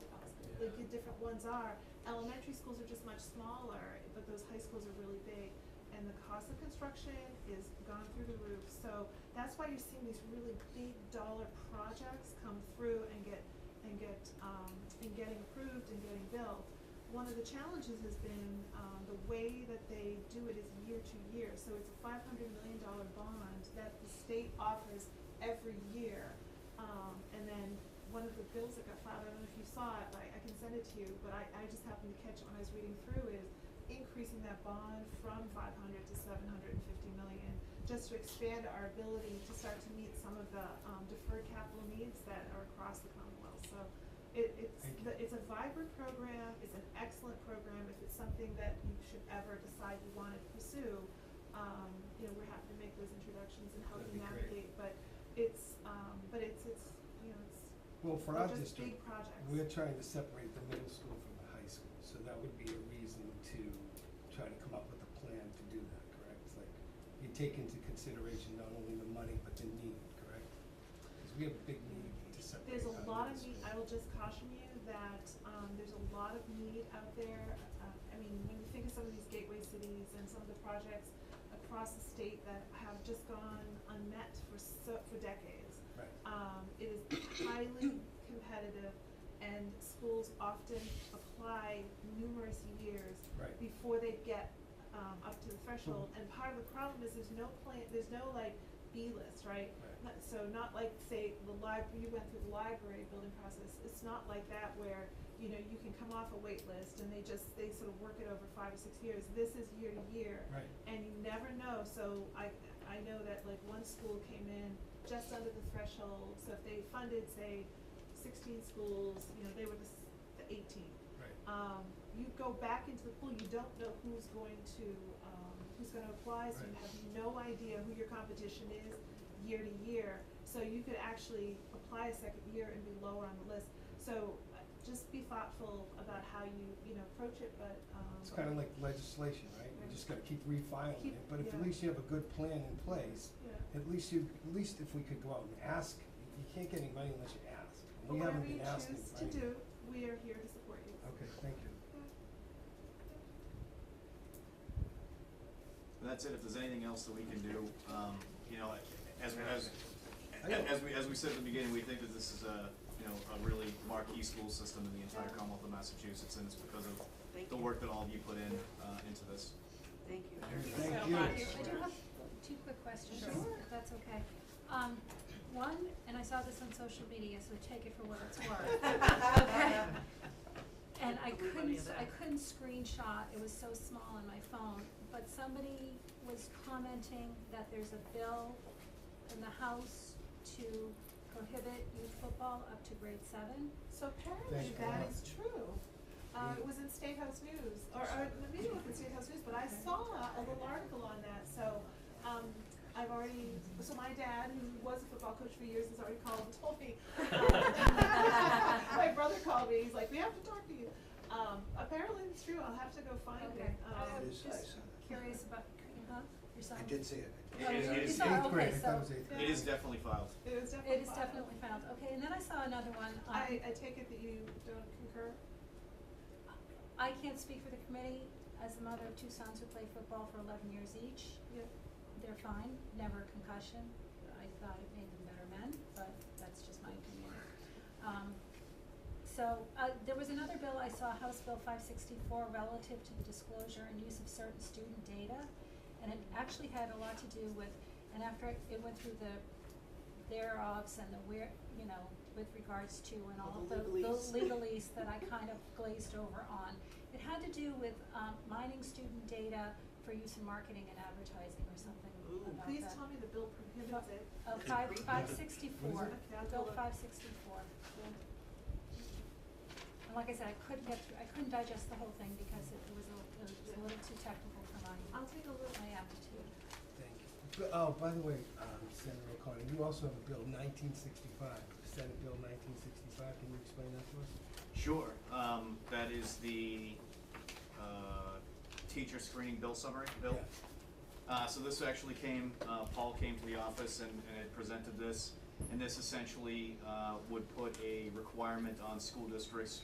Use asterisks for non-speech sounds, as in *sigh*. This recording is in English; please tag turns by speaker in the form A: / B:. A: different ones are. Elementary schools are just much smaller, but those high schools are really big, and the cost of construction is gone through the roof. So that's why you're seeing these really big dollar projects come through and get, and get, um, and getting approved and getting built. One of the challenges has been, um, the way that they do it is year to year, so it's a five hundred million dollar bond that the state offers every year. Um, and then one of the bills that got filed, I don't know if you saw it, but I, I can send it to you, but I, I just happened to catch it when I was reading through is increasing that bond from five hundred to seven hundred and fifty million, just to expand our ability to start to meet some of the, um, deferred capital needs that are across the Commonwealth, so it, it's,
B: Thank you.
A: the- it's a vibrant program, it's an excellent program, if it's something that you should ever decide you wanna pursue, um, you know, we're happy to make those introductions and help
B: That'd
A: you
B: be great.
A: navigate, but it's, um, but it's, it's, you know, it's,
B: Well, for
A: they're
B: our
A: just big
B: district,
A: projects.
B: we're trying to separate the middle school from the high school, so that would be a reason to try to come up with a plan to do that, correct? It's like, you take into consideration not only the money, but the need, correct? Because we have a big need to separate
A: There's
B: our
A: a lot of
B: middle
A: need, I
B: school.
A: will just caution you that, um, there's a lot of need out there. Uh, I mean, when you think of some of these gateway cities and some of the projects across the state that have just gone unmet for so, for decades.
B: Right.
A: Um, it is highly competitive and schools often apply numerous years
B: Right. Mm-hmm.
A: before they get um, up to the threshold. And part of the problem is there's no plan, there's no like B list, right?
B: Right.
A: Not- So not like say the library, you went through the library building process. It's not like that where you know you can come off a wait list and they just they sort of work it over five or six years. This is year to year
B: Right.
A: and you never know, so I, I know that like one school came in just under the threshold, so if they funded, say, sixteen schools, you know, they were the s- the eighteenth.
B: Right.
A: Um, you go back into the pool, you don't know who's going to, um, who's gonna apply, so you
B: Right.
A: have no idea who your competition is year to year, so you could actually apply a second year and be lower on the list. So uh, just be thoughtful about how you, you know, approach it, but, um.
B: It's kind of like legislation, right? You
A: Right.
B: just gotta keep refiling
A: Keep-
B: it, but if at
A: yeah.
B: least you have a good plan in place,
A: Yeah.
B: at least you, at least if we could go out and ask, you can't get any money unless you ask. And
A: But
B: We
A: whatever
B: haven't
A: you
B: been asking,
A: choose to
B: right?
A: do, we are here to support you.
B: Okay, thank you.
C: That's it, if there's anything else that we can do, um, you know, as, as,
B: I know.
C: as we, as we said at the beginning, we think that this is a, you know, a really marquee school system in the entire
D: Yeah.
C: Commonwealth of Massachusetts, and it's because of
D: Thank
C: the
D: you.
C: work that all of you put in, uh, into this.
D: Thank you.
B: Thank
E: so
B: you.
E: much.
F: I do have two quick questions, if
D: Sure.
F: that's okay. Um, one, and I saw this on social media, so take it for what it's
A: *laughs*
F: worth. Okay.
B: *laughs*
F: And I
D: Believe any
F: couldn't,
D: of that.
F: I couldn't screenshot, it was so small on my phone, but somebody was commenting that there's a bill in the House to prohibit youth football up to grade seven.
A: So apparently
B: Thank
A: that
B: God.
A: is true. Uh, it was in State House News, or, uh, or maybe it was in State House News, but I saw a little article on that, so, um, I've already, so my dad, who was a football coach for years, has already called and told
B: *laughs*
A: me. My brother called me, he's like, we have to talk to you. Um, apparently it's true, I'll have to go find it.
F: Okay.
A: Um,
G: It
F: I was
G: is- I
F: just
G: saw that.
F: curious about, huh, yourself?
G: I did see it. I did.
C: It is- it
F: Oh, you
C: is-
F: saw it,
B: Eighth grade, I
F: okay, so-
B: thought it was eighth grade.
C: It is definitely filed.
A: It was definitely.
F: It is
A: filed.
F: definitely found, okay, and then I saw another one,
A: I, I
F: um,
A: take it that you don't concur?
F: I can't speak for the committee, as a mother of two sons who played football for eleven years each,
A: Yeah.
F: they're fine, never a concussion, I thought it made them better men, but that's just my opinion. Um, so, uh, there was another bill I saw, House Bill five sixty-four, relative to the disclosure and use of certain student data, and it actually had a lot to do with, and after it it went through the thereofs and the where, you know, with regards to and all
D: All
F: of
D: the
F: the, the legalese
D: legalese.
F: that I kind of glazed over on. It had to do with, um, mining student data for use in marketing and advertising or something
D: Ooh.
F: about
A: Please
F: that.
A: tell me the bill prohibits it.
F: Uh, five, five
B: What
F: sixty-four,
B: is
A: it? Okay, I'll
F: go
A: go look.
F: five sixty-four. And like I said, I couldn't get through, I couldn't digest the whole thing because it was a, it was a little too technical for my,
A: I'll take a look.
F: my aptitude.
B: Thank you. But, oh, by the way, um, Senator O'Connor, you also have a bill nineteen sixty-five, Senate Bill nineteen sixty-five, can you explain that to us?
C: Sure, um, that is the, uh, teacher screening bill summary, bill.
B: Yeah.
C: Uh, so this actually came, uh, Paul came to the office and, and had presented this, and this essentially, uh, would put a requirement on school districts